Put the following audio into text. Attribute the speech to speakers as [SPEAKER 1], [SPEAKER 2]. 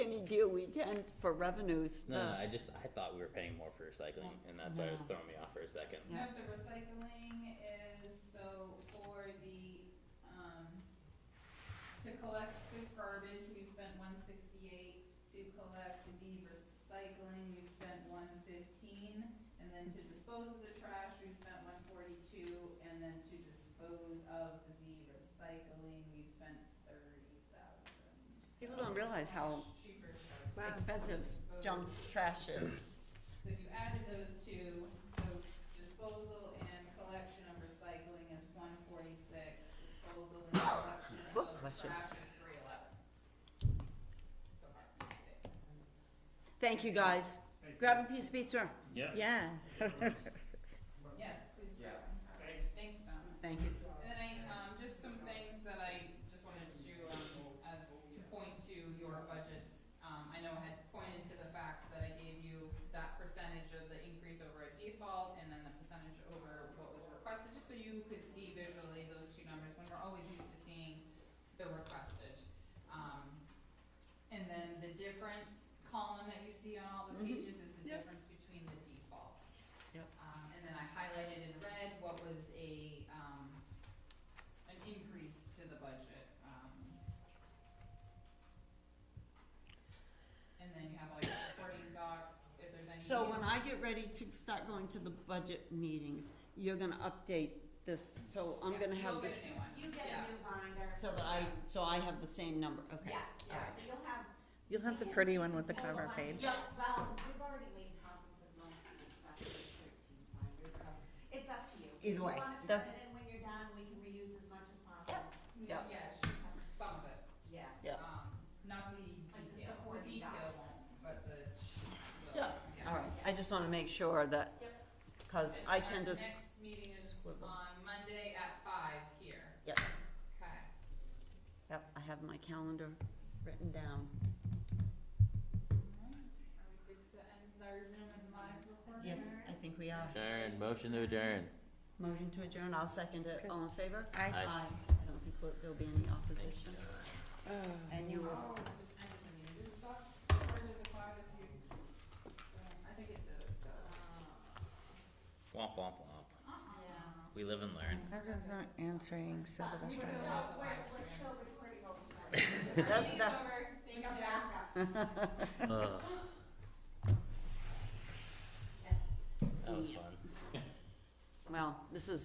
[SPEAKER 1] you, we can't for revenues
[SPEAKER 2] No, no,
[SPEAKER 1] to,
[SPEAKER 2] I just, I thought we were paying more for recycling, and that's why it was
[SPEAKER 1] No.
[SPEAKER 2] throwing me off for a second.
[SPEAKER 1] Yeah.
[SPEAKER 3] But the recycling is so for the, um, to collect the garbage, we've spent one sixty-eight. To collect the recycling, we've spent one fifteen, and then to dispose of the trash, we've spent one forty-two, and then to dispose of the recycling, we've spent thirty thousand.
[SPEAKER 1] People don't realize how-
[SPEAKER 3] Cheaper stuff.
[SPEAKER 4] Wow.
[SPEAKER 1] expensive junk trash is.
[SPEAKER 3] So if you added those two, so disposal and collection of recycling is one forty-six, disposal and collection
[SPEAKER 1] Book
[SPEAKER 3] of
[SPEAKER 1] question.
[SPEAKER 3] trash is three eleven. So far, okay.
[SPEAKER 1] Thank you, guys. Grab a piece of pizza.
[SPEAKER 5] Yeah.
[SPEAKER 4] Yeah.
[SPEAKER 3] Yes, please do.
[SPEAKER 5] Yeah.
[SPEAKER 3] Alright, Thank you, Donna.
[SPEAKER 1] Thank you.
[SPEAKER 3] And then I, um, just some things that I just wanted to, um, as, to point to your budgets. Um, I know I had pointed to the fact that I gave you that percentage of the increase over a default and then the percentage over what was requested, just so you could see visually those two numbers when we're always used to seeing the requested. Um, and then the difference column that you see on all the
[SPEAKER 1] Mhm.
[SPEAKER 3] pages is the
[SPEAKER 1] Yep.
[SPEAKER 3] difference between the default.
[SPEAKER 1] Yep.
[SPEAKER 3] Um, and then I highlighted in red what was a, um, an increase to the budget, um. And then you have all your supporting docs, if there's any.
[SPEAKER 1] So when I get ready to start going to the budget meetings, you're gonna update this, so I'm
[SPEAKER 3] Yeah,
[SPEAKER 1] gonna have this,
[SPEAKER 3] You'll get a new one.
[SPEAKER 6] You get a
[SPEAKER 3] Yeah.
[SPEAKER 6] new binder.
[SPEAKER 1] so that I, so I have the same number, okay?
[SPEAKER 6] Yes, yes,
[SPEAKER 1] alright.
[SPEAKER 6] so you'll have.
[SPEAKER 4] You'll have the pretty one with the cover page.
[SPEAKER 6] Yeah, Well, we've already made copies of most of the stuff in the thirteen binders, so it's up to you.
[SPEAKER 1] Either way,
[SPEAKER 6] You want to,
[SPEAKER 1] does-
[SPEAKER 6] and then when you're done, we can reuse as much as possible.
[SPEAKER 1] Yeah.
[SPEAKER 3] Yeah, she- some of it,
[SPEAKER 6] Yeah.
[SPEAKER 1] Yeah.
[SPEAKER 3] um, not the
[SPEAKER 6] Like the
[SPEAKER 3] detail, the
[SPEAKER 6] supporting
[SPEAKER 3] detail won't,
[SPEAKER 6] documents.
[SPEAKER 3] but the sheets will,
[SPEAKER 1] Yeah,
[SPEAKER 3] yes.
[SPEAKER 1] All right, I just wanna make sure that,
[SPEAKER 6] Yep.
[SPEAKER 1] cause I tend to,
[SPEAKER 3] And
[SPEAKER 1] s-
[SPEAKER 3] our next meeting is
[SPEAKER 1] swivel.
[SPEAKER 3] on Monday at five here,
[SPEAKER 1] yes,
[SPEAKER 3] okay?
[SPEAKER 1] yep, I have my calendar written down.
[SPEAKER 3] Alright, Are we good to end our Zoom and live recording?
[SPEAKER 1] Yes, I think we are.
[SPEAKER 2] Adjourn, motion to adjourn.
[SPEAKER 1] Motion to adjourn, I'll second it,
[SPEAKER 4] Okay.
[SPEAKER 1] all in favor?
[SPEAKER 4] Aye.
[SPEAKER 2] Aye.
[SPEAKER 1] I don't think we'll- there'll be any opposition. And you will,
[SPEAKER 3] Oh, it just ended the meeting. Does it stop? Or did the cloud if you? um, I think it did. it does.
[SPEAKER 2] Womp womp womp.
[SPEAKER 3] Yeah.
[SPEAKER 2] We live and learn.
[SPEAKER 4] Margaret's not answering, so
[SPEAKER 6] But
[SPEAKER 4] the
[SPEAKER 3] We
[SPEAKER 6] we're
[SPEAKER 4] best I
[SPEAKER 3] still
[SPEAKER 4] know.
[SPEAKER 3] have the
[SPEAKER 6] still,
[SPEAKER 3] live
[SPEAKER 6] we're, we're
[SPEAKER 3] stream.
[SPEAKER 6] still recording over
[SPEAKER 1] That-
[SPEAKER 6] time.
[SPEAKER 3] Meeting's
[SPEAKER 1] that-
[SPEAKER 3] over.
[SPEAKER 6] We
[SPEAKER 3] Thank
[SPEAKER 6] come
[SPEAKER 3] you.
[SPEAKER 6] back up.
[SPEAKER 2] Ugh. That was fun.
[SPEAKER 1] well, this is